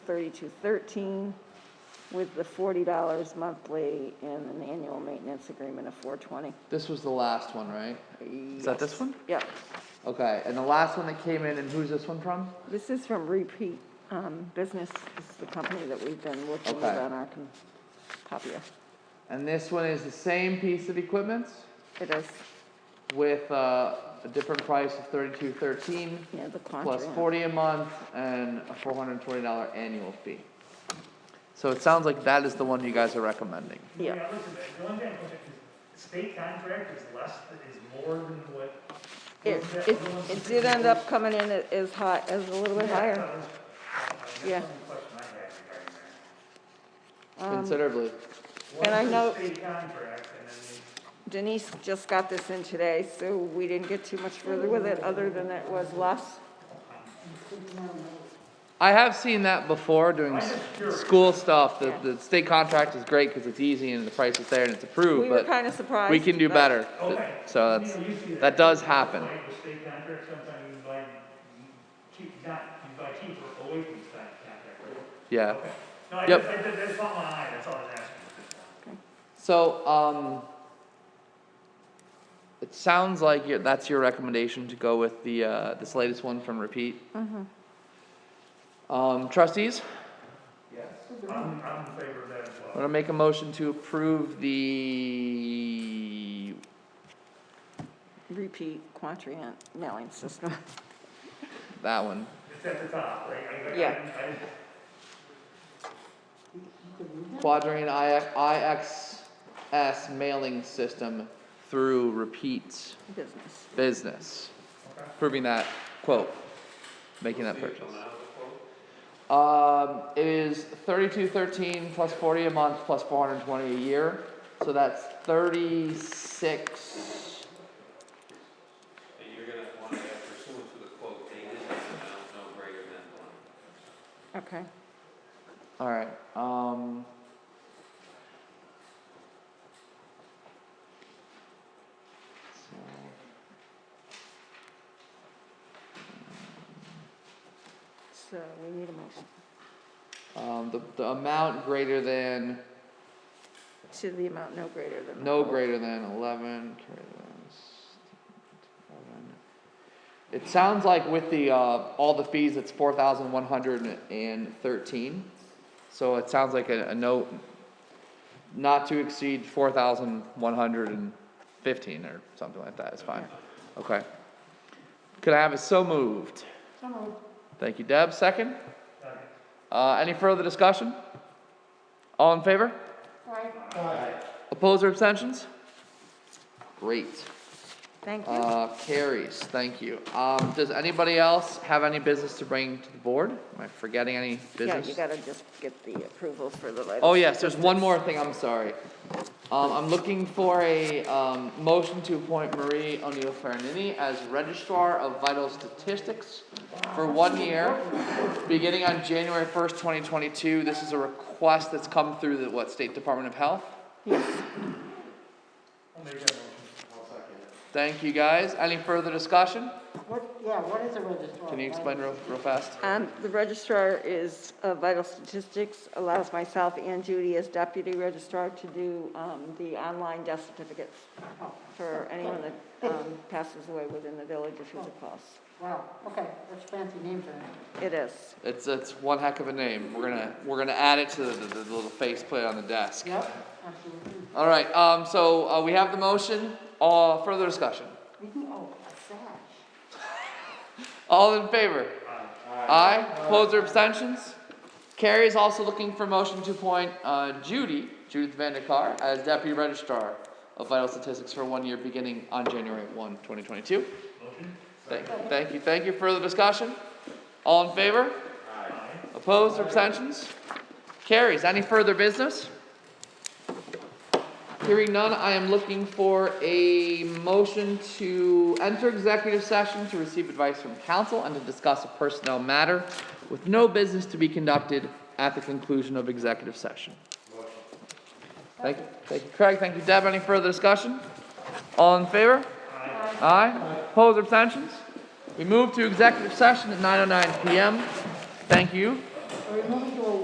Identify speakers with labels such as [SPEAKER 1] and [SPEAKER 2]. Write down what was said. [SPEAKER 1] 3213 with the $40 monthly and an annual maintenance agreement of 420.
[SPEAKER 2] This was the last one, right? Is that this one?
[SPEAKER 1] Yep.
[SPEAKER 2] Okay, and the last one that came in, and who's this one from?
[SPEAKER 1] This is from Repeat um, Business. This is the company that we've been working with
[SPEAKER 2] Okay.
[SPEAKER 1] on our com- copier.
[SPEAKER 2] And this one is the same piece of equipment
[SPEAKER 1] It is,
[SPEAKER 2] with uh, a different price of thirty-two thirteen
[SPEAKER 1] yeah, the Quantra.
[SPEAKER 2] plus forty a month and a four hundred and twenty dollar annual fee. So it sounds like that is the one you guys are recommending.
[SPEAKER 1] Yeah.
[SPEAKER 3] Yeah, listen, the one thing, the state contract is less, than- is more than what.
[SPEAKER 1] It, it, it did end up coming in a- as high, as a little bit higher.
[SPEAKER 3] That was- uh, That's the
[SPEAKER 1] Yeah.
[SPEAKER 3] only question I had regarding that.
[SPEAKER 1] Um,
[SPEAKER 2] Considerably.
[SPEAKER 1] And I
[SPEAKER 3] One's a
[SPEAKER 1] know-
[SPEAKER 3] State contract, and then
[SPEAKER 1] Denise just got this in today, so we didn't get too much further with it, other than it was less.
[SPEAKER 2] I have seen that before doing s- school stuff. The,
[SPEAKER 1] Yeah.
[SPEAKER 2] the state contract is great because it's easy and the price is there and it's
[SPEAKER 1] We
[SPEAKER 2] approved,
[SPEAKER 1] were
[SPEAKER 2] but
[SPEAKER 1] kind of surprised.
[SPEAKER 2] we can do
[SPEAKER 1] but-
[SPEAKER 2] better. Th-
[SPEAKER 3] Okay.
[SPEAKER 2] So
[SPEAKER 3] You
[SPEAKER 2] that's,
[SPEAKER 3] know, you see
[SPEAKER 2] that does happen.
[SPEAKER 3] Like the state contract, sometimes you buy cheap, not, you buy cheaper away from the state contract. right?
[SPEAKER 2] Yeah.
[SPEAKER 3] Okay. No, I
[SPEAKER 2] Yep.
[SPEAKER 3] just, I just, that's not my eye, that's all I was asking.
[SPEAKER 2] So, um, it sounds like your, that's your recommendation to go with the, uh, this latest one from Repeat.
[SPEAKER 1] Mm-hmm.
[SPEAKER 2] Um, trustees,
[SPEAKER 3] I'm, I'm in favor of that as
[SPEAKER 2] I'm
[SPEAKER 3] well.
[SPEAKER 2] gonna make a motion to approve the,
[SPEAKER 1] Repeat Quatrient mailing system.
[SPEAKER 2] that one.
[SPEAKER 3] It's at the top, right? I- I-
[SPEAKER 1] Yeah.
[SPEAKER 3] I- I-
[SPEAKER 2] Quadrant IXS mailing system through Repeat
[SPEAKER 1] business.
[SPEAKER 2] Business.
[SPEAKER 3] Okay.
[SPEAKER 2] Approving that quote, making that purchase. Um, it is thirty-two thirteen plus forty a month plus four hundred and twenty a year, so that's thirty-six.
[SPEAKER 4] And you're gonna want to have pursuant to the quote dated and amount no greater than one.
[SPEAKER 1] Okay.
[SPEAKER 2] Alright, um. so-
[SPEAKER 1] So we need a motion
[SPEAKER 2] Um, the, the amount greater than,
[SPEAKER 1] to the amount no greater than.
[SPEAKER 2] no greater than eleven, greater than s- 11. It sounds like with the, uh, all the fees, it's four thousand one hundred and thirteen. So it sounds like a, a note not to exceed four thousand one hundred and fifteen or something like that is fine. Okay. Could I have it so moved? So moved. Thank you, Deb. Second?
[SPEAKER 3] Second.
[SPEAKER 2] Uh, any further discussion? All in favor? Opposed or abstentions? Great.
[SPEAKER 1] Thank you.
[SPEAKER 2] Uh, carries, thank you. Um, does anybody else have any business to bring to the board? Am I forgetting any
[SPEAKER 1] Yeah, you
[SPEAKER 2] business?
[SPEAKER 1] gotta just get the approval for the latest.
[SPEAKER 2] Oh, yes, there's one more thing, I'm sorry. Um, I'm looking for a, um, motion to appoint Marie O'Neill Farinini as Registrar of Vital Statistics for one year, beginning on January first, twenty twenty-two. This is a request that's come through the, what, State Department of Health?
[SPEAKER 1] Yes.
[SPEAKER 3] I'll make that motion.
[SPEAKER 2] Thank you, guys. Any further discussion?
[SPEAKER 5] What, yeah, what is a registrar?
[SPEAKER 2] Can you explain real, real fast?
[SPEAKER 1] Um, the registrar is uh, Vital Statistics, allows myself and Judy as deputy registrar to do, um, the online death certificates for anyone that, um, passes away within the village or through the cross.
[SPEAKER 5] Wow, okay, that's fancy name for that.
[SPEAKER 1] It is.
[SPEAKER 2] It's, it's one heck of a name. We're gonna, we're gonna add it to the, the, the little faceplate on the desk.
[SPEAKER 5] Yep, absolutely.
[SPEAKER 2] All right, um, so, uh, we have the motion, uh, further discussion.
[SPEAKER 5] We can, oh, a sash.
[SPEAKER 2] All in favor? Aye. Opposed or abstentions? Carrie is also looking for motion to appoint, uh, Judy, Judith Vanderkar, as deputy registrar of vital statistics for one year beginning on January one, twenty twenty-two.
[SPEAKER 3] Motion?
[SPEAKER 2] Thank, thank you, thank you. Further discussion? All in favor? Opposed or abstentions? Carries. Any further business? Hearing none, I am looking for a motion to enter executive session to receive advice from counsel and to discuss a personnel matter with no business to be conducted at the conclusion of executive session. Thank you, thank you Craig, thank you Deb. Any further discussion? All in favor? Aye. Opposed, oh abstentions? We move to executive session at 9:09 PM. Thank you.
[SPEAKER 5] Or remove it to a